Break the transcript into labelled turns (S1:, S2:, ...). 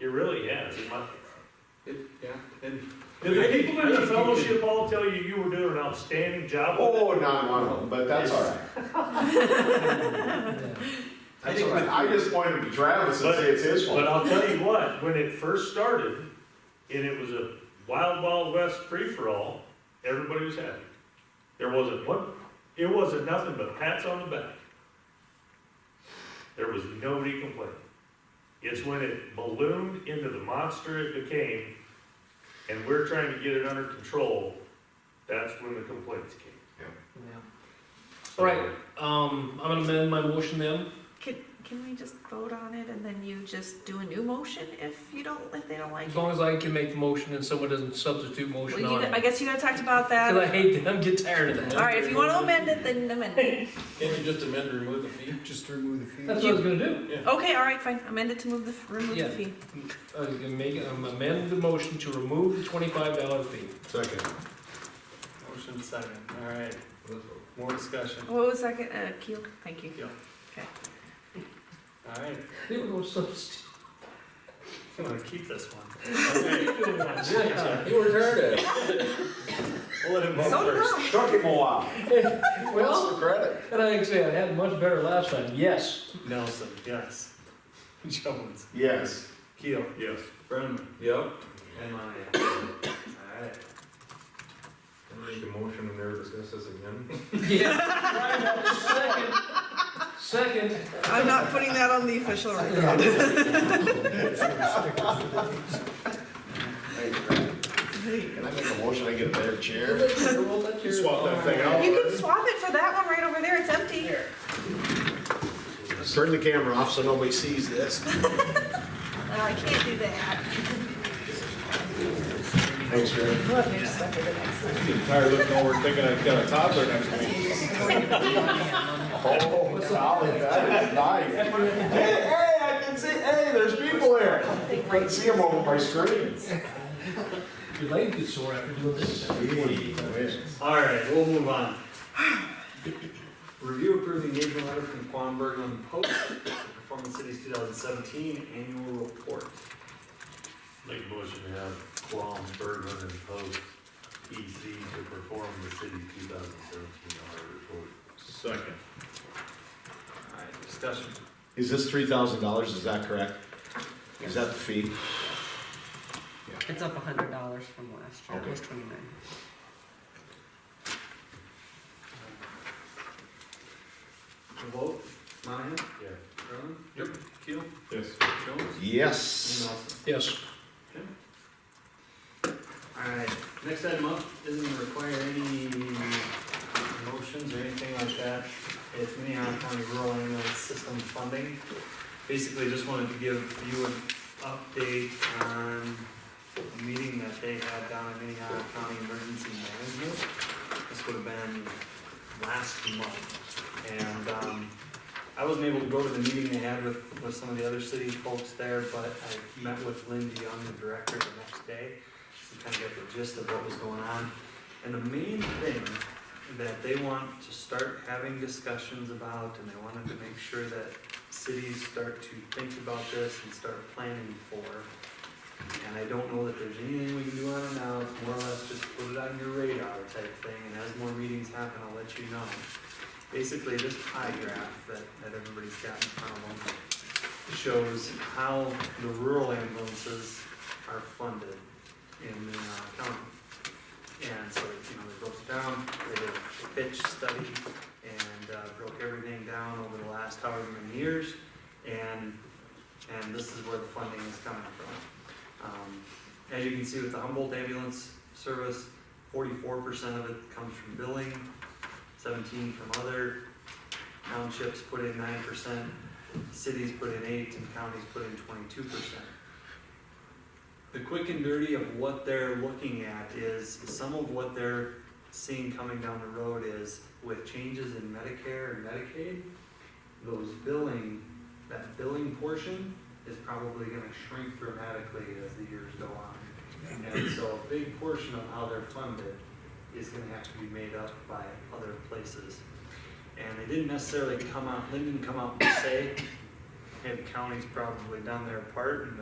S1: It really has. It might-
S2: It, yeah, and,
S1: Did the people in the fellowship all tell you you were doing an outstanding job? with it?
S3: Oh, not one of them, but that's all right.
S2: I
S3: That's
S2: think
S3: all right.
S2: with-
S3: I just pointed to Travis and
S1: But-
S3: say it's his
S1: But
S3: fault.
S1: I'll tell you what, when it first started, and it was a wild, wild west free-for-all, everybody was happy. There wasn't one, it wasn't nothing but pats on the back. There was nobody complaining. It's when it ballooned into the monster it became, and we're trying to get it under control, that's when the complaints came.
S4: All right, um, I'm gonna amend my motion then.
S5: Can, can we just vote on it and then you just do a new motion if you don't, if they don't like
S4: As
S5: it?
S4: long as I can make the motion and someone doesn't substitute
S5: Well,
S4: motion
S5: you,
S4: on
S5: I
S4: it.
S5: guess you guys talked about that.
S4: Cause I hate that, I'm getting tired of that.
S5: All right, if you want to amend it, then amend it.
S2: can't you just amend and remove the fee?
S6: Just to remove the fee.
S4: That's what I was gonna do.
S5: Okay, all right, fine, amend it to move the, f- remove the
S4: Yeah.
S5: fee.
S4: I was gonna make, it- I'm amending the motion to remove the twenty-five dollar fee.
S3: Second.
S2: Motion second, all right, more discussion,
S5: What was that, uh, Keel, thank you.
S2: all right,
S4: They were no substitute.
S2: I'm gonna keep this one. Okay,
S4: Yeah.
S6: You were tired of it.
S2: We'll let him vote
S5: So
S2: first.
S5: dumb.
S3: Took him a while.
S4: Well,
S6: the credit?
S4: and I can say I had much better last time, yes.
S2: Nelson, yes. Jones,
S3: Yes.
S2: Keel,
S1: Yes.
S2: Brenneman.
S6: Yep.
S2: And uh, Monahan. All right.
S3: Make a motion and never discuss this again.
S4: Second, second,
S5: I'm not putting that on the official record.
S3: Can I make a motion I get a better chair? Swap that thing
S5: You can
S3: out.
S5: swap it for that one right over there, it's empty.
S3: Turn the camera off so nobody sees this.
S5: No, Uh, I can't do that.
S3: Thanks, Greg.
S7: Tired looking over thinking I've got a toddler next to me.
S3: Oh, golly, that is nice. Hey, hey, I can see, hey, there's people here. I can see them over my screen.
S4: your leg gets sore after doing this.
S2: All right, we'll move on. Review approved engagement letter from Quan Berglund Post, Performance Cities 2017 Annual Report.
S1: Make a motion to have Qualm, Bergman, and Post EC to perform the city's two thousand seventeen audit report.
S7: Second.
S2: All right, discussion.
S3: Is this three thousand dollars, is that correct? Is that the fee?
S8: It's up a hundred dollars from last year, it was twenty-nine.
S2: The vote, Monahan,
S1: Yeah.
S2: Brenneman? Yep. Keel?
S7: Yes.
S2: Jones? And
S3: Yes.
S2: Nelson.
S4: Yes,
S2: All right, next item up doesn't require any motions or anything like that. It's Minnehaha County Rural Ambulance System funding. Basically, just wanted to give you an update on a meeting that they had down at Minnehaha County Emergency Management. This would have been last month. And, um, I wasn't able to go to the meeting they had with, with some of the other city folks there, but I met with Lindy Young, the director, the next day we kind of get the gist of what was going on. And the main thing that they want to start having discussions about, and they wanted to make sure that cities start to think about this and start planning for. And I don't know that there's anything we can do on it now, it's more or less just put it on your radar type thing, and as more meetings happen, I'll let you know. Basically, this pie graph that, that everybody's got in front of them shows how the rural ambulances are funded in the uh, county. And so, you know, they broke it down, they did a pitch study and uh, broke everything down over the last however many years. And, and this is where the funding is coming from. Um, As you can see with the Humboldt ambulance service, forty-four percent of it comes from billing, seventeen from other. Townships put in nine percent, cities put in eight, and counties put in twenty-two percent. The quick and dirty of what they're looking at is, some of what they're seeing coming down the road is with changes in Medicare and Medicaid, those billing, that billing portion is probably gonna shrink dramatically as the years go on. And so a big portion of how they're funded is gonna have to be made up by other places. And they didn't necessarily come out, Lyndon come out and say, hey, the county's probably done their part and